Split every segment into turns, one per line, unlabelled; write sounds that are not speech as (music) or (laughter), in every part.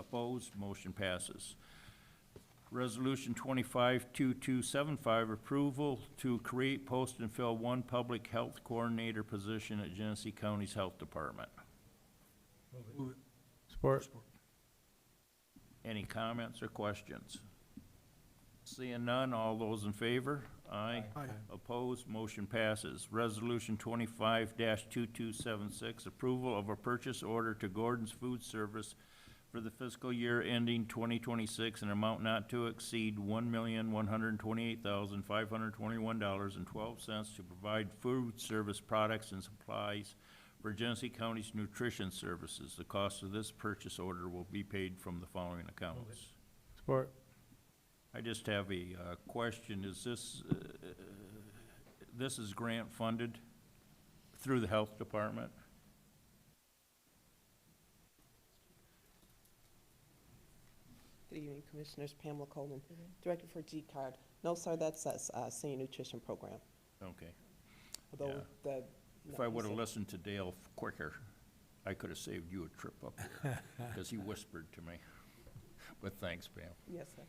Opposed? Motion passes. Resolution twenty-five two-two-seven-five, approval to create, post, and fill one public health coordinator position at Genesee County's Health Department.
Move it.
Support.
Any comments or questions? Seeing none, all those in favor? Aye.
Aye.
Opposed, motion passes. Resolution twenty-five two-two-seven-six, approval of a purchase order to Gordon's Food Service for the fiscal year ending twenty twenty-six an amount not to exceed one million, one hundred and twenty-eight thousand, five hundred and twenty-one dollars and twelve cents to provide food service products and supplies for Genesee County's nutrition services. The cost of this purchase order will be paid from the following accounts.
Support.
I just have a uh, question, is this, uh, this is grant funded through the health department?
Good evening, Commissioners. Pamela Colden, Director for G-Card. No, sir, that's us, uh, Senior Nutrition Program,
Okay,
although the.
if I would've listened to Dale quicker, I could've saved you a trip up here,
(laughs)
because he whispered to me. But thanks, Pam.
Yes, sir.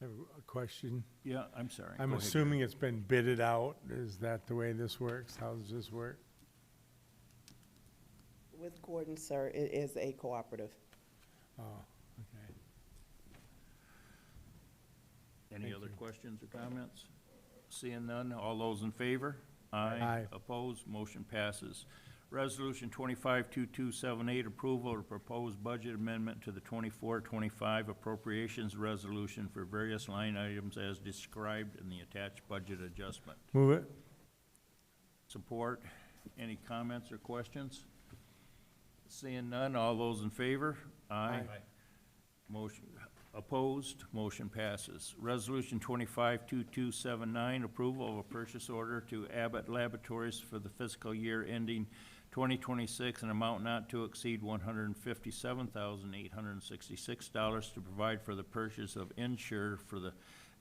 I have a question.
Yeah, I'm sorry.
I'm
Go ahead,
assuming it's been bidded out. Is that the way this works? How does this work?
With Gordon, sir, it is a cooperative.
Oh, okay.
Gary. Any
Thank
other
you.
questions or comments? Seeing none, all those in favor? Aye.
Aye.
Opposed, motion passes. Resolution twenty-five two-two-seven-eight, approval of proposed budget amendment to the twenty-four, twenty-five appropriations resolution for various line items as described in the attached budget adjustment.
Move it.
Support, any comments or questions? Seeing none, all those in favor? Aye. Motion, opposed, motion passes. Resolution twenty-five two-two-seven-nine, approval of a purchase order to Abbott Laboratories for the fiscal year ending twenty twenty-six an amount not to exceed one hundred and fifty-seven thousand eight hundred and sixty-six dollars to provide for the purchase of insure for the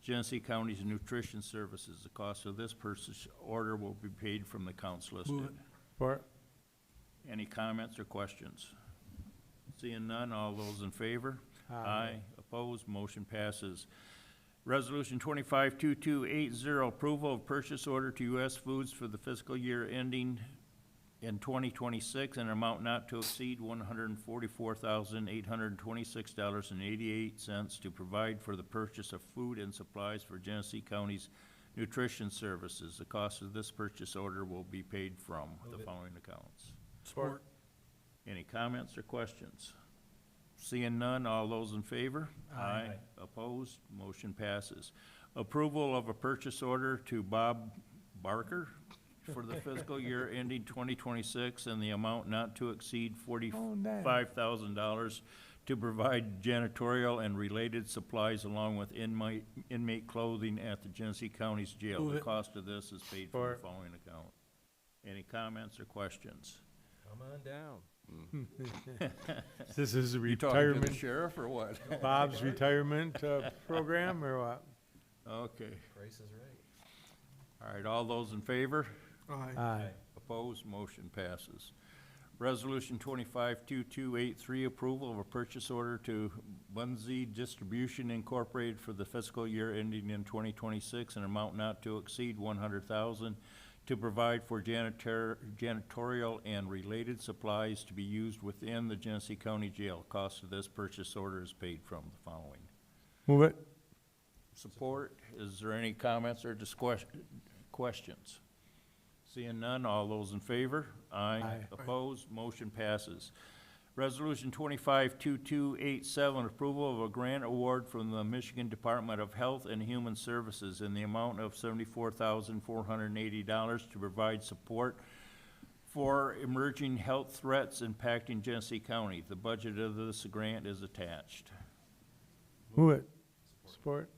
Genesee County's nutrition services. The cost of this purchase order will be paid from the accounts listed.
Support.
Any comments or questions? Seeing none, all those in favor?
Aye.
Opposed, motion passes. Resolution twenty-five two-two-eight-zero, approval of purchase order to U.S. Foods for the fiscal year ending in twenty twenty-six an amount not to exceed one hundred and forty-four thousand, eight hundred and twenty-six dollars and eighty-eight cents to provide for the purchase of food and supplies for Genesee County's nutrition services. The cost of this purchase order will be paid from the following accounts.
Support.
Any comments or questions? Seeing none, all those in favor? Aye. Opposed, motion passes. Approval of a purchase order to Bob Barker for the fiscal year ending twenty twenty-six and the amount not to exceed
Oh, nice.
forty-five thousand dollars to provide janitorial and related supplies along with inmate, inmate clothing at the Genesee County's jail. The cost of this is paid from the
Support.
following account. Any comments or questions?
Come on down.
This is a
You talking to the (laughs)
retirement,
sheriff or what?
Bob's retirement uh, program or what?
Okay,
Price is right.
all right, all those in favor?
Aye.
Opposed, motion passes. Resolution twenty-five two-two-eight-three, approval of a purchase order to Bunzee Distribution Incorporated for the fiscal year ending in twenty twenty-six an amount not to exceed one hundred thousand to provide for janitor, janitorial and related supplies to be used within the Genesee County Jail. Cost of this purchase order is paid from the following.
Move it.
Support. Is there any comments or disques- questions? Seeing none, all those in favor? Aye.
Aye.
Opposed, motion passes. Resolution twenty-five two-two-eight-seven, approval of a grant award from the Michigan Department of Health and Human Services in the amount of seventy-four thousand four hundred and eighty dollars to provide support for emerging health threats impacting Genesee County. The budget of this grant is attached.
Move it. Support.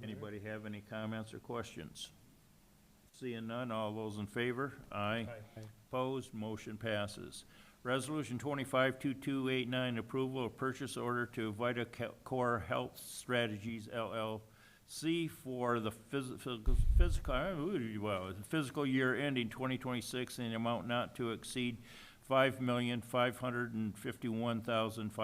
Anybody have any comments or questions? Seeing none, all those in favor? Aye.
Aye.
Opposed, motion passes. Resolution twenty-five two-two-eight-nine, approval of purchase order to Vita Ca- Core Health Strategies LLC for the physical, physical, uh, ooh, well, the fiscal year ending twenty twenty-six in an amount not to exceed five million, five hundred and fifty-one thousand, five